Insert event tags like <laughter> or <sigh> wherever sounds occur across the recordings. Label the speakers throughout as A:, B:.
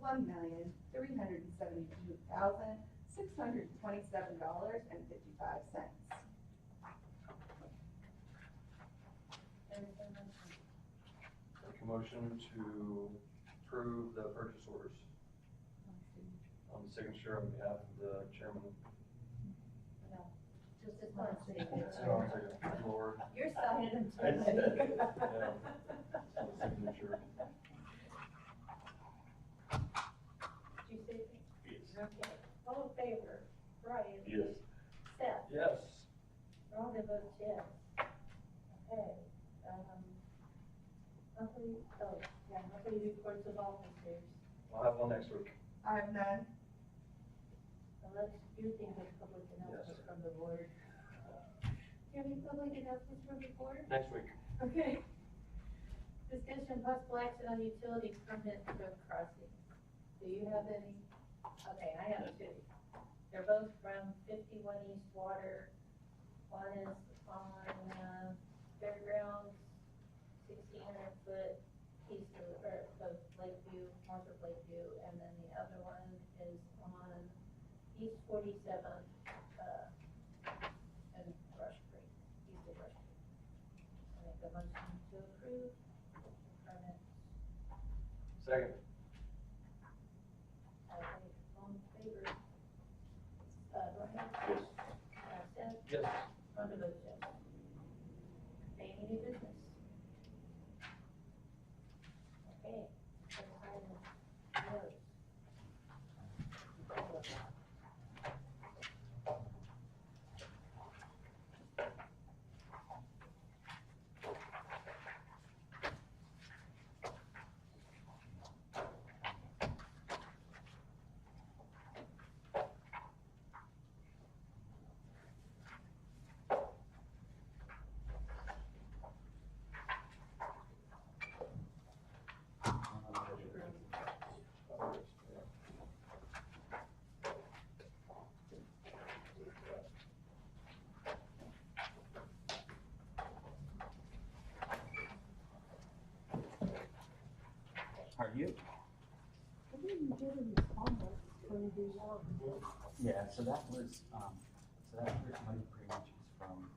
A: one million, three hundred and seventy-two thousand, six hundred and twenty-seven dollars and fifty-five cents.
B: Make a motion to approve the purchase orders on the signature on behalf of the chairman.
C: Just as long as they get
B: So I'll take it. Lord,
C: You're signing them
B: I said,
C: too.
A: <laughs>
B: yeah, so the signature.
C: Did you say it? Okay. All in favor? Brian?
B: Yes.
C: Seth?
B: Yes.
C: Rhonda votes yes. Okay, um, monthly, oh, yeah, monthly reports of officers.
B: I'll have one next week.
A: I have none.
C: Unless you think of public announcements from the board. Do you have any public announcements from the board?
B: Next week.
C: Okay. Discussion possible action on utility permit road crossing. Do you have any? Okay, I have two. They're both from fifty-one East Water. One is on, uh, fairgrounds, sixteen hundred foot east of, or of Lakeview, north of Lakeview. And then the other one is on East forty-seventh, uh, and Rush Creek, east of Rush Creek. I make a motion to approve the permit.
B: Second.
C: All in- all in favor? Uh, Brian?
B: Yes.
C: Uh, Seth?
B: Yes.
C: Rhonda votes yes. Okay, any new business? Okay. so item notes.
D: Are you? Yeah, so that was, um, so that first money pretty much is from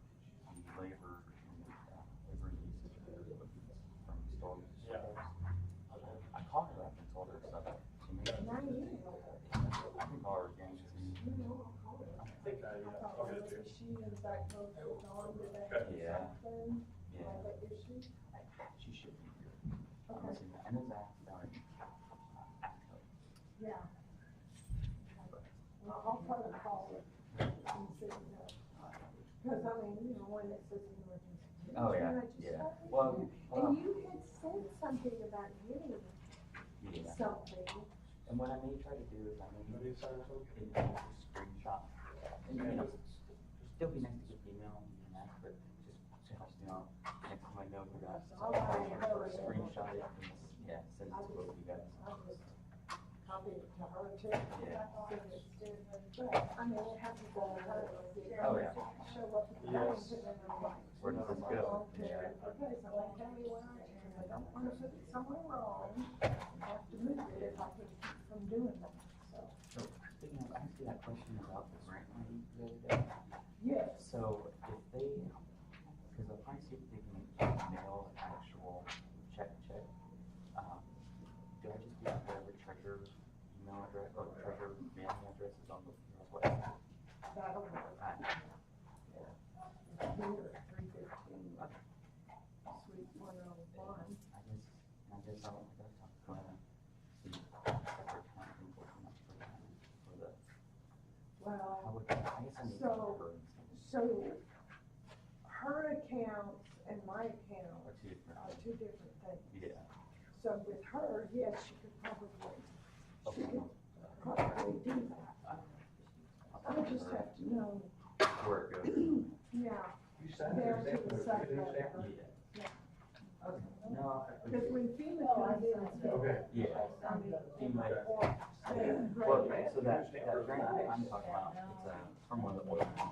D: um, labor and, uh, labor and usage of their equipment from storage.
B: Yeah.
D: I called her up and told her stuff. She made it. I can call her again, she's.
B: I think I, uh, I'll get it to you.
D: Yeah. Yeah, she should be here. I'm gonna see, and it's at, down in, uh, Atco.
A: Yeah. Well, I'll probably call it and see, because I mean, you know, one that says an emergency.
D: Oh, yeah,
A: And I just-
D: yeah. Well,
A: And
D: well,
A: you had said something about getting
D: yeah,
A: something.
D: and what I may try to do is I may.
B: Anybody sign this one?
D: in the screenshot. And, you know, still be nice to get the email and that, but just, just, you know, next time I know you guys. so I'll Screenshot it and, yeah, send it to both of you guys.
A: I'll just copy it to her too.
D: Yeah.
A: I mean, it happens all the time.
D: Oh, yeah.
A: Show up. at the
B: Yes.
A: house and then I'm like,
D: Where does this go? Yeah.
A: Okay, so like, tell me where I am, I don't wanna put it somewhere wrong. I have to move it if I can keep from doing that, so.
D: Speaking of, I asked you that question about the grant money the other day.
A: Yes.
D: So if they, because if I see if they can mail an actual check, check, um, do I just do whatever treasurer email address or treasurer mailing address is on the request?
A: That'll work.
D: I-
A: Here, three fifteen, sweet one oh one.
D: I guess, I guess I don't think I've talked to him. See, separate kind of people come up for that, for the,
A: Well,
D: how would, I guess I need to
A: So-
D: refer and send it
A: so her accounts and my account
D: to two different,
A: are two different things.
D: yeah.
A: So with her, yes, she could probably, she
D: Okay.
A: could probably do that.
D: I'll
A: I
D: talk to
A: just
D: her
A: have to know,
D: Where it goes.
A: yeah,
B: You signed
A: There
B: your
A: to the
B: example,
A: side.
B: you didn't stamp
D: Yeah.
A: Yeah.
D: Okay, no, I.
A: because when FEMA
C: Oh, I
A: comes
C: see.
B: it.
A: in,
B: Okay.
D: Yeah.
A: I mean,
D: Anyway,
A: or say,
D: well,
A: great,
D: so that, that grant I'm talking about, it's, uh, from one of the oil companies.
C: Oh,